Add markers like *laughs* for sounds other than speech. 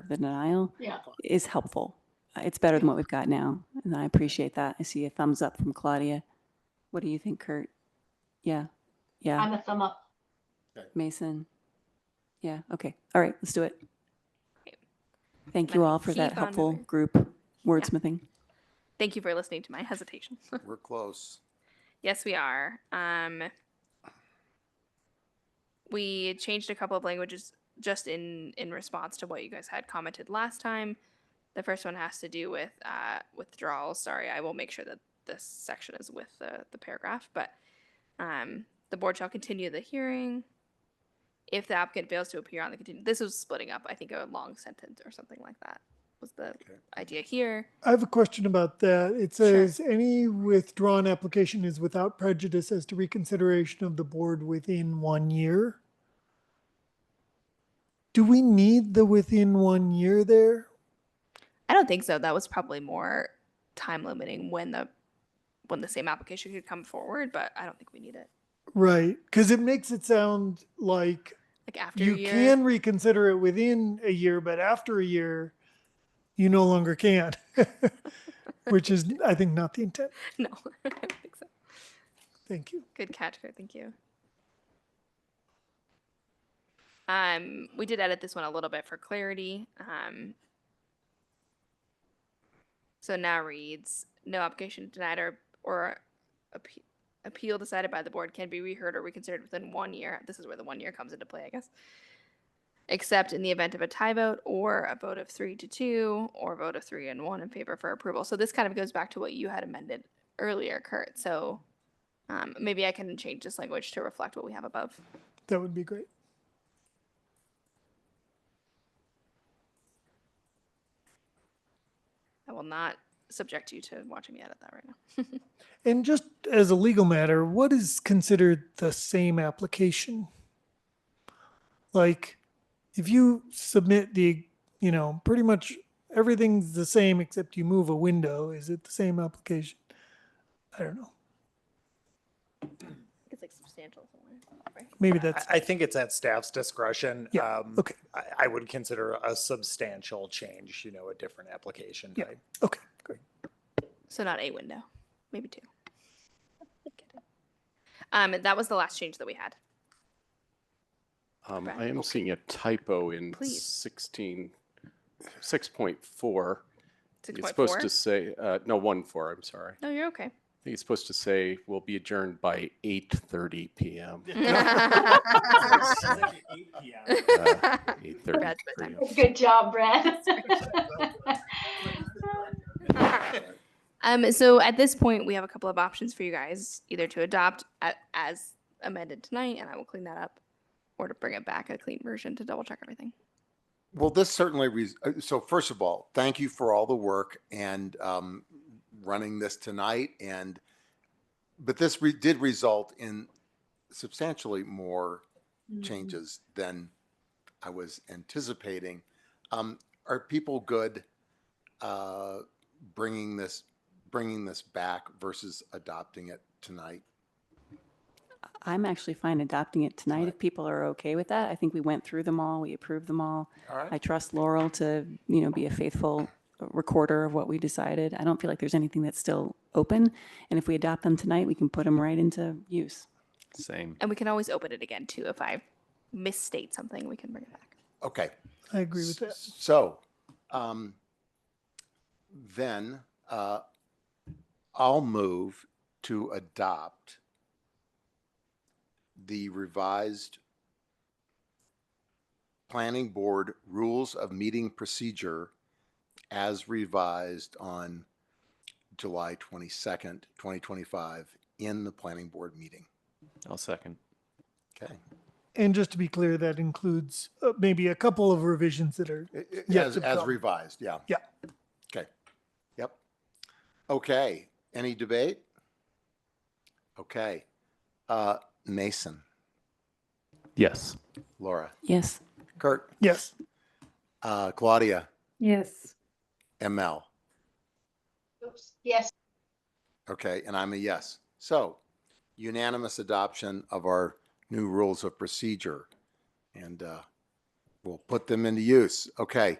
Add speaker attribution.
Speaker 1: of the denial
Speaker 2: Yeah.
Speaker 1: is helpful. Uh, It's better than what we've got now, and I appreciate that. I see a thumbs up from Claudia. What do you think, Kurt? Yeah, yeah,
Speaker 2: I'm a thumb up.
Speaker 1: Mason? Yeah, okay, all right, let's do it.
Speaker 3: Okay.
Speaker 1: Thank you
Speaker 3: Let's
Speaker 1: all for that
Speaker 3: keep on
Speaker 1: helpful
Speaker 3: moving.
Speaker 1: group wordsmithing.
Speaker 3: Thank you for listening to my hesitation. *laughs*
Speaker 4: We're close.
Speaker 3: yes, we are. Um, we changed a couple of languages just in in response to what you guys had commented last time. The first one has to do with uh, withdrawals. Sorry, I will make sure that this section is with the, the paragraph. But um, the board shall continue the hearing if the applicant fails to appear on the continue. This was splitting up. I think a long sentence or something like that was the
Speaker 4: Okay.
Speaker 3: idea here.
Speaker 5: I have a question about that. It
Speaker 3: Sure.
Speaker 5: says any withdrawn application is without prejudice as to reconsideration of the board within one year. Do we need the within one year there?
Speaker 3: I don't think so. That was probably more time limiting when the when the same application could come forward, but I don't think we need it.
Speaker 5: Right, because it makes it sound like
Speaker 3: Like after
Speaker 5: you
Speaker 3: a year,
Speaker 5: can reconsider it within a year, but after a year, you no longer can. *laughs* Which is, I think, not the intent.
Speaker 3: *laughs* no, *laughs* I don't think so.
Speaker 5: Thank you.
Speaker 3: Good catch, Kurt. Thank you. Um, we did edit this one a little bit for clarity. Um, so now reads no application denied or or appe- appeal decided by the board can be reheard or reconsidered within one year. This is where the one year comes into play, I guess. Except in the event of a tie vote or a vote of three to two or vote of three and one in favor for approval. So this kind of goes back to what you had amended earlier, Kurt. So um, maybe I can change this language to reflect what we have above.
Speaker 5: That would be great.
Speaker 3: I will not subject you to watching me edit that right now.
Speaker 5: And just as a legal matter, what is considered the same application? Like, if you submit the, you know, pretty much everything's the same except you move a window, is it the same application? I don't know.
Speaker 3: It's like substantial somewhere.
Speaker 5: Maybe
Speaker 6: I,
Speaker 5: that's
Speaker 6: I think it's at staff's discretion.
Speaker 5: Yeah,
Speaker 6: Um,
Speaker 5: okay.
Speaker 6: I, I would consider a substantial change, you know, a different application
Speaker 5: Yeah.
Speaker 6: type.
Speaker 5: okay. Great.
Speaker 3: So not a window, maybe *laughs* two. Um, that was the last change that we had.
Speaker 7: Um,
Speaker 3: Correct.
Speaker 7: I am seeing a typo in
Speaker 3: Please.
Speaker 7: 16, 6.4.
Speaker 3: Six
Speaker 7: It's
Speaker 3: point
Speaker 7: supposed
Speaker 3: four.
Speaker 7: to say, uh, no, 1.4, I'm sorry. I
Speaker 3: No, you're *laughs*
Speaker 7: *laughs*
Speaker 3: okay.
Speaker 7: think it's supposed to say, we will be adjourned by 8:30
Speaker 3: *laughs*
Speaker 7: PM. Uh, 8:30.
Speaker 3: Brad's bedtime.
Speaker 2: Good job, Brad.
Speaker 3: Um, so at this point, we have a couple of options for you guys, either to adopt a- as amended tonight, and I will clean that up, or to bring it back a clean version to double check everything.
Speaker 4: Well, this certainly, re- uh, so first of all, thank you for all the work and um, running this tonight and, but this re- did result in substantially more changes than I was anticipating. Um, Are people good uh, bringing this, bringing this back versus adopting it tonight?
Speaker 1: I'm actually fine adopting it tonight if people are okay with that. I think we went through them all, we approved them all.
Speaker 4: All right.
Speaker 1: I trust Laurel to, you know, be a faithful recorder of what we decided. I don't feel like there's anything that's still open. And if we adopt them tonight, we can put them right into use.
Speaker 7: Same.
Speaker 3: And we can always open it again too. If I misstate something, we can bring it back.
Speaker 4: Okay.
Speaker 5: I agree with that.
Speaker 4: S- So, um, then, uh, I'll move to adopt the revised planning board rules of meeting procedure as revised on July 22nd, 2025 in the planning board meeting.
Speaker 7: I'll second.
Speaker 4: Okay.
Speaker 5: And just to be clear, that includes uh, maybe a couple of revisions that are
Speaker 4: I- I-
Speaker 5: Yeah,
Speaker 4: As,
Speaker 5: to
Speaker 4: as
Speaker 5: come.
Speaker 4: revised, yeah.
Speaker 5: Yeah.
Speaker 4: Okay. Yep. Okay. Any debate? Okay. Uh, Mason,
Speaker 7: Yes.
Speaker 4: Laura,
Speaker 1: Yes.
Speaker 4: Kurt,
Speaker 5: yes.
Speaker 4: uh, Claudia,
Speaker 8: Yes.
Speaker 4: ML.
Speaker 2: *laughs* Oops. Yes.
Speaker 4: Okay. And I'm a yes. So unanimous adoption of our new rules of procedure and, uh, we'll put them into use. Okay.